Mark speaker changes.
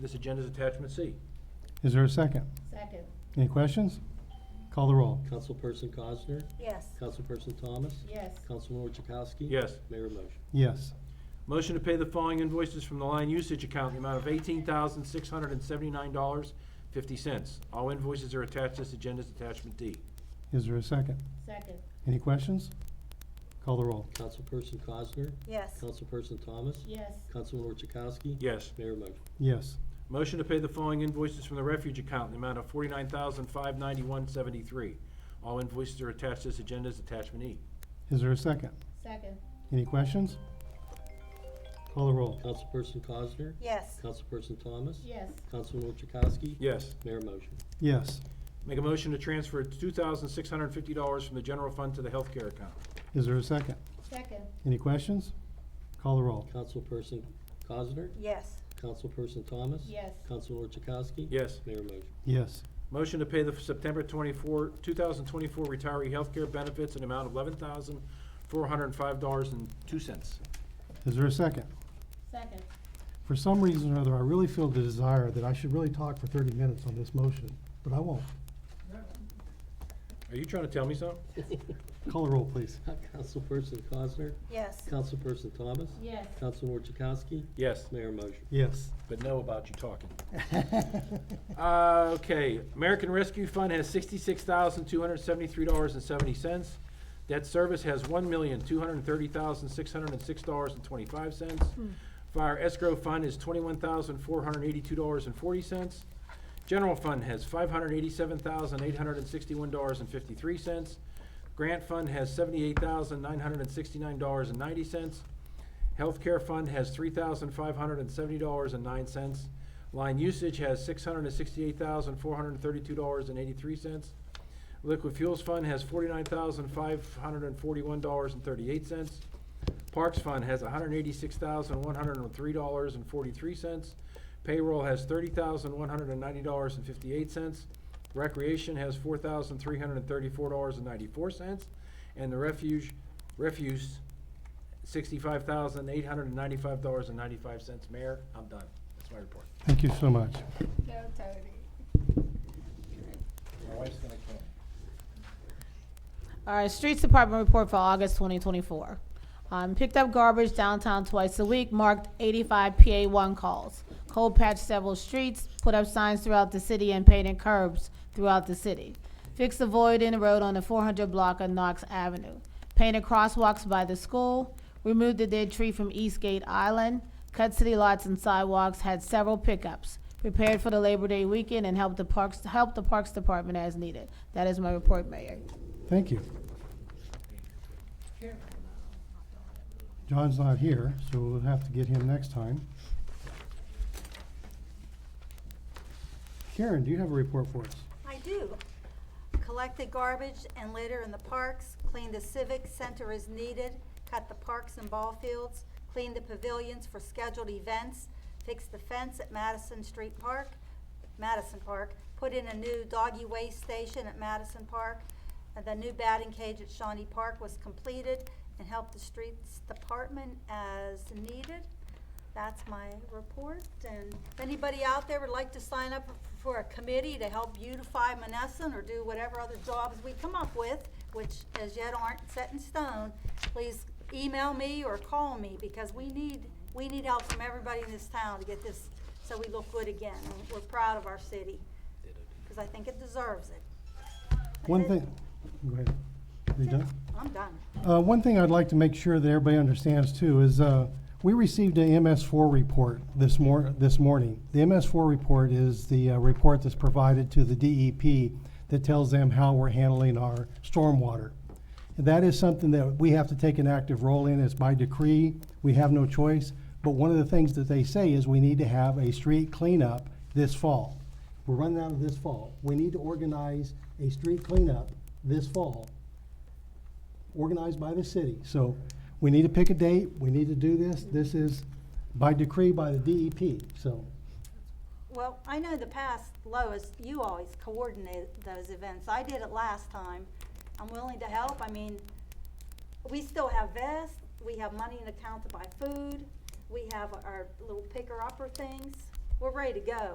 Speaker 1: This agenda's attachment C.
Speaker 2: Is there a second?
Speaker 3: Second.
Speaker 2: Any questions? Call the roll.
Speaker 4: Councilperson Cosner?
Speaker 3: Yes.
Speaker 4: Councilperson Thomas?
Speaker 3: Yes.
Speaker 4: Councilor Chakowski?
Speaker 1: Yes.
Speaker 4: Mayor motion.
Speaker 2: Yes.
Speaker 1: Motion to pay the following invoices from the line usage account in the amount of eighteen thousand, six hundred and seventy-nine dollars, fifty cents. All invoices are attached to this agenda's attachment D.
Speaker 2: Is there a second?
Speaker 3: Second.
Speaker 2: Any questions? Call the roll.
Speaker 4: Councilperson Cosner?
Speaker 3: Yes.
Speaker 4: Councilperson Thomas?
Speaker 3: Yes.
Speaker 4: Councilor Chakowski?
Speaker 1: Yes.
Speaker 4: Mayor motion.
Speaker 2: Yes.
Speaker 1: Motion to pay the following invoices from the refuge account in the amount of forty-nine thousand, five ninety-one, seventy-three. All invoices are attached to this agenda's attachment E.
Speaker 2: Is there a second?
Speaker 3: Second.
Speaker 2: Any questions? Call the roll.
Speaker 4: Councilperson Cosner?
Speaker 3: Yes.
Speaker 4: Councilperson Thomas?
Speaker 3: Yes.
Speaker 4: Councilor Chakowski?
Speaker 1: Yes.
Speaker 4: Mayor motion.
Speaker 2: Yes.
Speaker 1: Make a motion to transfer two thousand, six hundred and fifty dollars from the general fund to the healthcare account.
Speaker 2: Is there a second?
Speaker 3: Second.
Speaker 2: Any questions? Call the roll.
Speaker 4: Councilperson Cosner?
Speaker 3: Yes.
Speaker 4: Councilperson Thomas?
Speaker 3: Yes.
Speaker 4: Councilor Chakowski?
Speaker 1: Yes.
Speaker 4: Mayor motion.
Speaker 2: Yes.
Speaker 1: Motion to pay the September 24, 2024 retiree healthcare benefits in amount of $11,405.02.
Speaker 2: Is there a second?
Speaker 3: Second.
Speaker 2: For some reason or other, I really feel the desire that I should really talk for thirty minutes on this motion, but I won't.
Speaker 1: Are you trying to tell me something?
Speaker 2: Call the roll, please.
Speaker 4: Councilperson Cosner?
Speaker 3: Yes.
Speaker 4: Councilperson Thomas?
Speaker 3: Yes.
Speaker 4: Councilor Chakowski?
Speaker 1: Yes,
Speaker 4: Mayor motion.
Speaker 2: Yes.
Speaker 1: but know about you talking. Uh, Okay, American Rescue Fund has $66,273.70. Debt service has $1,230,606.25. Fire escrow fund is $21,482.40. General fund has $587,861.53. Grant fund has $78,969.90. Healthcare fund has three thousand five hundred and seventy dollars and nine cents. Line usage has six hundred and sixty-eight thousand four hundred and thirty-two dollars and eighty-three cents. Liquid fuels fund has forty-nine thousand five hundred and forty-one dollars and thirty-eight cents. Parks fund has hundred and eighty-six thousand one hundred and three dollars and forty-three cents. Payroll has thirty thousand one hundred and ninety dollars and fifty-eight cents. Recreation has four thousand three hundred and thirty-four dollars and ninety-four cents. And the refuge, refuse sixty-five thousand, eight hundred and ninety-five dollars and ninety-five cents. Mayor, I'm done. That's my report.
Speaker 2: Thank you so much.
Speaker 3: Go, Tony.
Speaker 1: My wife's gonna kill me.
Speaker 5: All right, Streets Department report for August 2024. Um, picked up garbage downtown twice a week, marked 85 PA1 calls. Cold patched several streets, put up signs throughout the city and painted curbs throughout the city. Fixed a void in the road on the 400 block of Knox Avenue. Painted crosswalks by the school, removed the dead tree from Eastgate Island, cut city lots and sidewalks, had several pickups. Prepared for the Labor Day weekend and helped the Parks, helped the Parks Department as needed. That is my report, Mayor.
Speaker 2: Thank you. John's not here, so we'll have to get him next time. Karen, do you have a report for us?
Speaker 6: I do. Collected garbage and litter in the parks, cleaned the civic center as needed, cut the parks and ball fields, cleaned the pavilions for scheduled events, fixed the fence at Madison Street Park, Madison Park, put in a new doggy waste station at Madison Park, and the new batting cage at Shawnee Park was completed, and helped the streets department as needed. That's my report, and if anybody out there would like to sign up for a committee to help beautify Monessen or do whatever other jobs we come up with, which as yet aren't set in stone, please email me or call me, because we need, we need help from everybody in this town to get this, so we look good again, and we're proud of our city, because I think it deserves it.
Speaker 2: One
Speaker 6: That's it.
Speaker 2: thing, go ahead. Are you
Speaker 6: That's it.
Speaker 2: done?
Speaker 6: I'm done.
Speaker 2: Uh, one thing I'd like to make sure that everybody understands too is, uh, we received a MS4 report this mor- this morning. The MS4 report is the, uh, report that's provided to the DEP that tells them how we're handling our stormwater. And that is something that we have to take an active role in. It's by decree. We have no choice. But one of the things that they say is we need to have a street cleanup this fall. We're running out of this fall. We need to organize a street cleanup this fall organized by the city. So we need to pick a date, we need to do this. This is by decree by the DEP, so.
Speaker 6: Well, I know the past, Lois, you always coordinate those events. I did it last time. I'm willing to help. I mean, we still have vests, we have money in account to buy food, we have our little picker-upper things. We're ready to go.